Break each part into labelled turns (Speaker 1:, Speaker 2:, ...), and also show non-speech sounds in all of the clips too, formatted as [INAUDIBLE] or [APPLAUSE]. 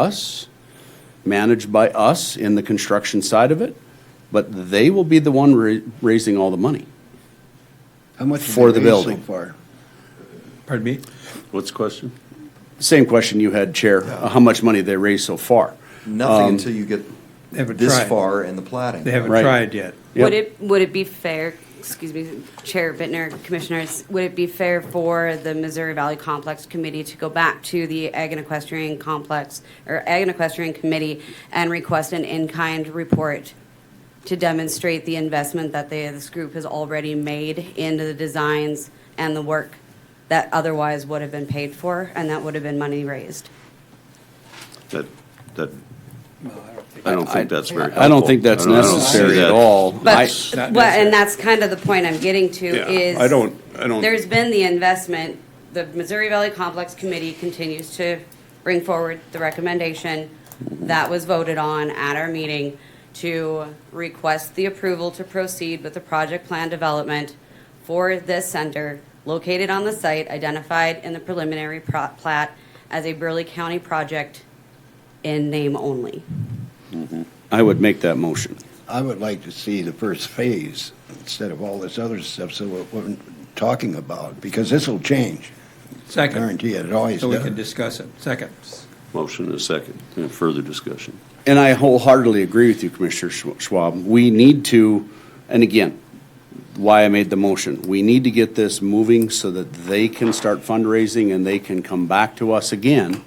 Speaker 1: us, managed by us in the construction side of it, but they will be the one ra- raising all the money.
Speaker 2: How much have
Speaker 1: For
Speaker 2: they
Speaker 1: the
Speaker 2: raised so
Speaker 1: building.
Speaker 2: far?
Speaker 3: Pardon me?
Speaker 4: What's the question?
Speaker 1: Same question you had, Chair, uh, how much money they raised so far? Um,
Speaker 5: Nothing until you get
Speaker 3: They haven't
Speaker 5: this
Speaker 3: tried.
Speaker 5: far in the plating.
Speaker 3: They haven't
Speaker 1: Right.
Speaker 3: tried yet.
Speaker 1: Yep.
Speaker 6: Would it, would it be fair, excuse me, Chair Bittner, Commissioners, would it be fair for the Missouri Valley Complex Committee to go back to the Ag and Equestrian Complex, or Ag and Equestrian Committee, and request an in-kind report to demonstrate the investment that they, this group has already made into the designs and the work that otherwise would have been paid for, and that would have been money raised?
Speaker 4: That, that, I don't think that's very helpful.
Speaker 1: I don't think that's
Speaker 4: I don't- I don't see
Speaker 1: necessary at
Speaker 4: that.
Speaker 1: all. I-
Speaker 6: But,
Speaker 3: not
Speaker 6: well, and that's kind of the point I'm getting to
Speaker 4: Yeah,
Speaker 6: is.
Speaker 4: I don't- I don't-
Speaker 6: There's been the investment, the Missouri Valley Complex Committee continues to bring forward the recommendation that was voted on at our meeting to request the approval to proceed with the project plan development for this center located on the site identified in the preliminary pro- plat as a Burley County project in name only.
Speaker 1: I would make that motion.
Speaker 2: I would like to see the first phase instead of all this other stuff, so what we're talking about, because this will change. I
Speaker 3: Second,
Speaker 2: guarantee it, it always
Speaker 3: so we can
Speaker 2: does.
Speaker 3: discuss it. Second.
Speaker 4: Motion and a second, and further discussion.
Speaker 1: And I wholeheartedly agree with you, Commissioner Schw- Schwab. We need to, and again, why I made the motion, we need to get this moving so that they can start fundraising and they can come back to us again.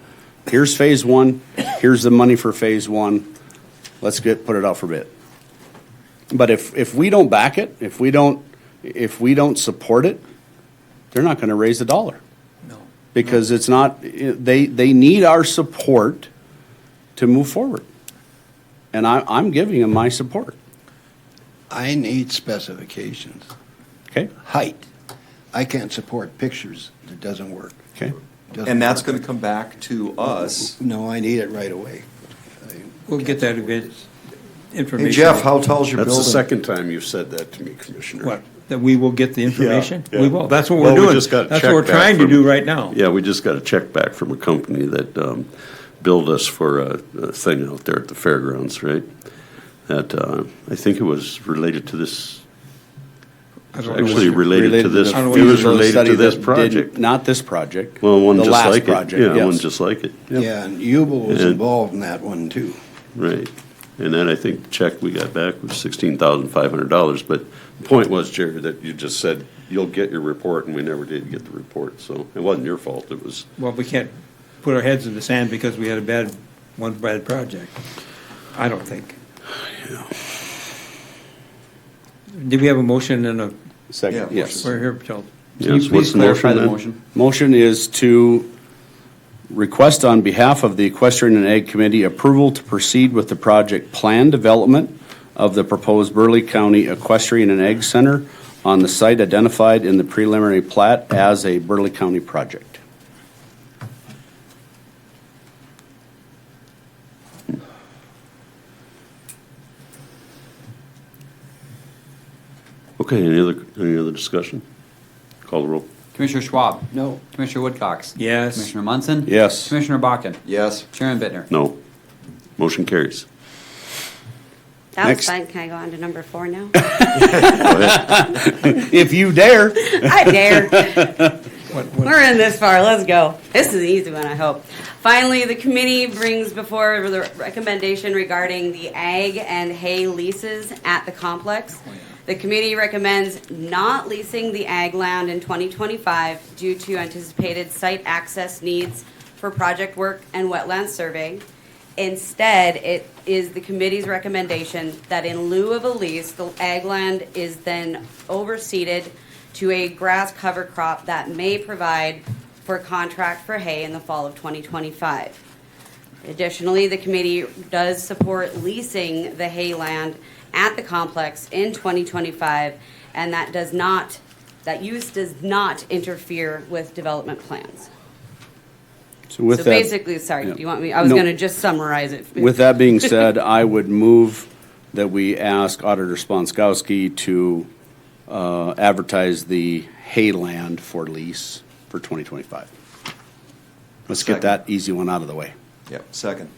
Speaker 1: Here's phase one, here's the money for phase one, let's get, put it out for bid. But if, if we don't back it, if we don't, if we don't support it, they're not gonna raise a dollar.
Speaker 3: No.
Speaker 1: Because it's not, they, they need our support to move forward. And I, I'm giving them my support,
Speaker 2: I need specifications.
Speaker 1: okay?
Speaker 2: Height. I can't support pictures. It doesn't work.
Speaker 1: Okay.
Speaker 2: Doesn't
Speaker 5: And that's
Speaker 2: work.
Speaker 5: going to come back to us.
Speaker 2: No, I need it right away.
Speaker 3: We'll get that event information.
Speaker 5: Hey Jeff, how tall's your
Speaker 4: That's the
Speaker 5: building?
Speaker 4: second time you've said that to me, Commissioner.
Speaker 3: What, that we will get the information?
Speaker 4: Yeah,
Speaker 3: We
Speaker 4: yeah.
Speaker 3: will. That's what
Speaker 4: Well,
Speaker 3: we're
Speaker 4: we
Speaker 3: doing.
Speaker 4: just got a
Speaker 3: That's
Speaker 4: check
Speaker 3: what we're
Speaker 4: back
Speaker 3: trying to
Speaker 4: from-
Speaker 3: do right now.
Speaker 4: Yeah, we just got a check back from a company that um, billed us for a a thing out there at the fairgrounds, right? That, uh, I think it was related to this,
Speaker 3: I don't know
Speaker 4: actually
Speaker 3: what-
Speaker 4: related to this,
Speaker 3: I
Speaker 4: it
Speaker 3: don't know what
Speaker 4: was
Speaker 3: you're-
Speaker 4: related
Speaker 1: Study
Speaker 4: to this
Speaker 1: that did-
Speaker 4: project.
Speaker 1: Not this project.
Speaker 4: Well, one
Speaker 1: the
Speaker 4: just
Speaker 1: last
Speaker 4: like it.
Speaker 1: project,
Speaker 4: Yeah, one
Speaker 1: yes.
Speaker 4: just like it,
Speaker 2: Yeah, and Yubel was
Speaker 4: And-
Speaker 2: involved in that one too.
Speaker 4: right. And then I think the check we got back was sixteen thousand five hundred dollars, but the point was, Jerry, that you just said, you'll get your report, and we never did get the report, so it wasn't your fault, it was
Speaker 3: Well, we can't put our heads in the sand because we had a bad, one bad project. I don't think. Did we have a motion and a,
Speaker 5: Yeah,
Speaker 1: Second,
Speaker 5: of
Speaker 1: yes.
Speaker 3: we're here, Charles?
Speaker 4: Yes, what's the motion then?
Speaker 1: Motion is to request on behalf of the Equestrian and Ag Committee approval to proceed with the project plan development of the proposed Burley County Equestrian and Ag Center on the site identified in the preliminary plat as a Burley County project.
Speaker 4: Okay, any other, any other discussion? Call the roll.
Speaker 7: Commissioner Schwab.
Speaker 2: No.
Speaker 7: Commissioner Woodcox.
Speaker 3: Yes.
Speaker 7: Commissioner Munson.
Speaker 1: Yes.
Speaker 7: Commissioner Bakken.
Speaker 5: Yes.
Speaker 7: Chairman Bittner.
Speaker 4: No. Motion carries.
Speaker 6: That
Speaker 1: Next.
Speaker 6: was fine. Can I go on to number four now?
Speaker 1: If you dare.
Speaker 6: [LAUGHS] I dare.
Speaker 3: What, what,
Speaker 6: We're in this far. Let's go. This is an easy one, I hope. Finally, the committee brings before the recommendation regarding the ag and hay leases at the complex.
Speaker 3: Oh,
Speaker 6: The committee recommends not leasing the ag land in 2025 due to anticipated site access needs for project work and wetland survey. Instead, it is the committee's recommendation that in lieu of a lease, the ag land is then overseeded to a grass cover crop that may provide for contract for hay in the fall of 2025. Additionally, the committee does support leasing the hay land at the complex in 2025, and that does not, that use does not interfere with development plans. So basically, sorry,
Speaker 1: yeah.
Speaker 6: do you want me, I was
Speaker 1: No.
Speaker 6: going to just summarize it.
Speaker 1: With that being said, I would move that we ask Auditor Sponskowski to uh, advertise the hay land for lease for 2025. Let's get
Speaker 5: Second.
Speaker 1: that easy one out of the way.
Speaker 5: Yep, second.